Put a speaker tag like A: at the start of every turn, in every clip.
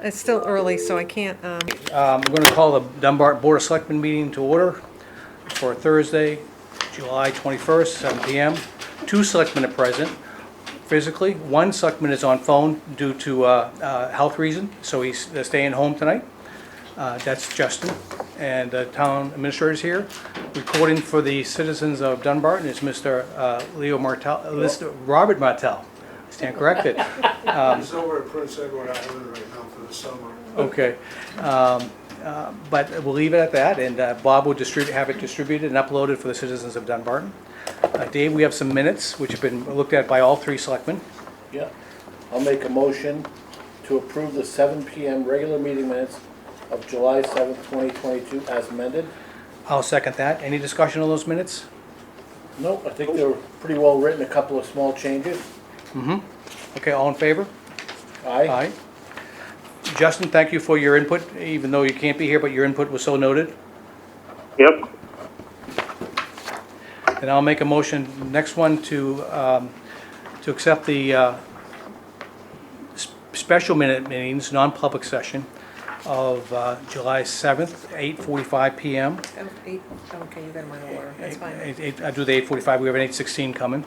A: It's still early, so I can't, um,
B: Um, We're going to call the Dunbar Board of Selectmen meeting to order for Thursday, July 21st, 7 PM. Two selectmen are present physically. One selectman is on phone due to uh, uh, health reason, so he's staying home tonight. Uh, That's Justin. And the town administrator is here. Recording for the citizens of Dunbarton is Mr. uh, Leo Martell, uh, Mr. Robert Martell. Stand corrected.
C: It's over at Prince Edward Island right now for the summer.
B: Okay, um, uh, but we'll leave it at that, and uh, Bob will distribute, have it distributed and uploaded for the citizens of Dunbarton. Uh, Dave, we have some minutes which have been looked at by all three selectmen.
D: Yeah, I'll make a motion to approve the seven PM regular meeting minutes of July seventh, twenty twenty-two as amended.
B: I'll second that. Any discussion on those minutes?
D: Nope, I think they were pretty well written, a couple of small changes.
B: Okay, all in favor?
D: Aye.
B: Aye. Justin, thank you for your input, even though you can't be here, but your input was so noted.
E: Yep,
B: And I'll make a motion, next one, to, um, to accept the uh, s- special minute meetings, non-public session of uh, July 7th, 8:45 PM.
A: oh, eight, okay, you got them out of order, that's fine.
B: Eight- eight- I do the 8:45, we have an 8:16 coming.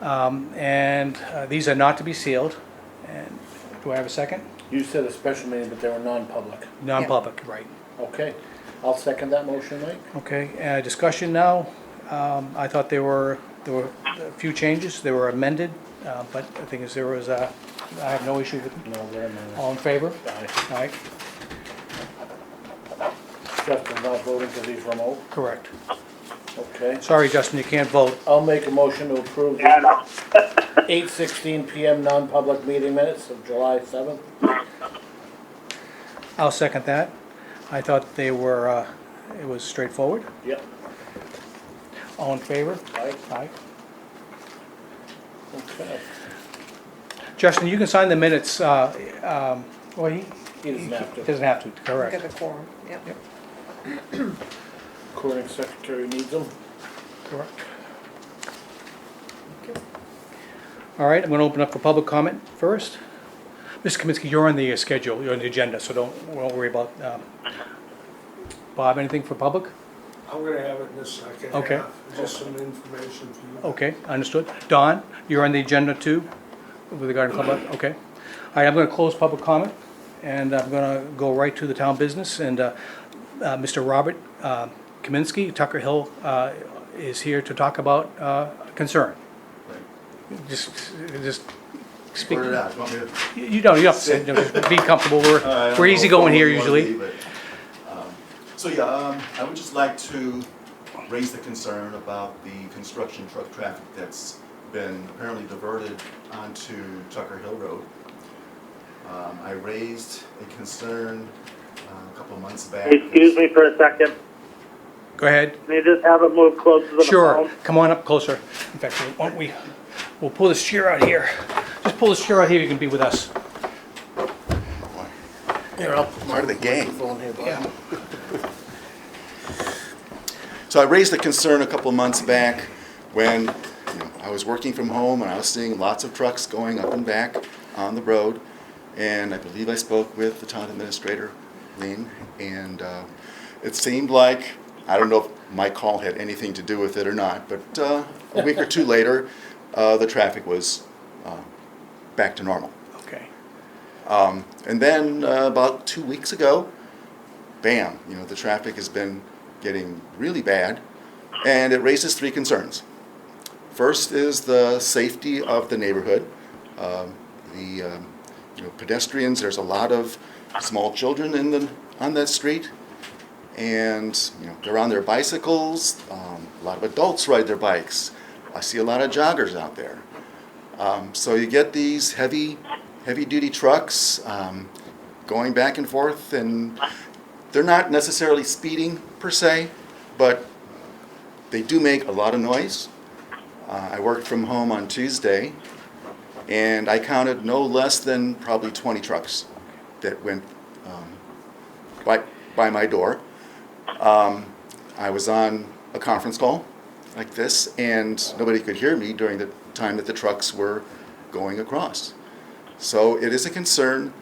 B: Um, And uh, these are not to be sealed. And Do I have a second?
D: You said a special meeting, but they were non-public.
B: Non-public, right.
D: Okay, I'll second that motion, Mike.
B: Okay, uh, discussion now. Um, I thought there were, there were a few changes, they were amended, uh, but I think is there was, uh, I have no issue with them.
D: No, they're amended.
B: All in favor?
D: Aye.
B: Aye,
D: Justin's not voting because he's remote,
B: correct.
D: okay.
B: Sorry, Justin, you can't vote.
D: I'll make a motion to approve
E: yeah,
D: the
E: no,
D: eight sixteen PM non-public meeting minutes of July seventh.
B: I'll second that. I thought they were, uh, it was straightforward.
D: Yep,
B: All in favor?
D: aye,
B: Aye.
D: okay.
B: Justin, you can sign the minutes, uh, um, well, he
D: He doesn't have to.
B: doesn't have to,
A: Look at
B: correct,
A: the quorum, yep.
B: Yep.
D: Recording secretary needs them.
B: correct. All right, I'm gonna open up for public comment first. Mr. Kaminsky, you're on the uh, schedule, you're on the agenda, so don't, don't worry about, um, Bob, anything for public?
C: I'm gonna have it in a second
B: Okay.
C: half, just some information for you.
B: Okay, understood. Don, you're on the agenda too, with regard to public, okay. All right, I'm gonna close public comment, and I'm gonna go right to the town business, and, uh, uh, Mr. Robert, uh, Kaminsky, Tucker Hill, uh, is here to talk about, uh, concern. Just, just speak,
F: Word it out, you want me to?
B: you you don't, you don't, have to say- no, just be comfortable,
F: Uh, I
B: we're,
F: don't
B: we're
F: know
B: easygoing
F: if
B: here
F: you wanna
B: usually.
F: leave it. Um, So yeah, um, I would just like to raise the concern about the construction truck traffic that's been apparently diverted onto Tucker Hill Road. Um, I raised a concern uh, a couple of months back.
E: excuse me for a second,
B: Go ahead.
E: can you just have it move closer to the phone?
B: Sure, come on up closer. In fact, why don't we, we'll pull this chair out here. Just pull this chair out here, you can be with us.
D: Here, I'll put
F: Part of the game.
D: phone here, Bob.
B: Yeah.
F: So I raised a concern a couple months back when you know, I was working from home and I was seeing lots of trucks going up and back on the road. And I believe I spoke with the town administrator, Lean, and uh, it seemed like, I don't know if my call had anything to do with it or not, but uh, a week or two later, uh, the traffic was uh, back to normal.
B: Okay.
F: And then uh, about two weeks ago, bam, you know, the traffic has been getting really bad, and it raises three concerns. First is the safety of the neighborhood. Um, the um, you know, pedestrians, there's a lot of small children in the, on that street, and you know, they're on their bicycles. Um, a lot of adults ride their bikes. I see a lot of joggers out there. Um, so you get these heavy, heavy-duty trucks um, going back and forth, and they're not necessarily speeding per se, but they do make a lot of noise. Uh, I worked from home on Tuesday, and I counted no less than probably 20 trucks that went um, by, by my door. Um, I was on a conference call like this, and nobody could hear me during the time that the trucks were going across. So it is a concern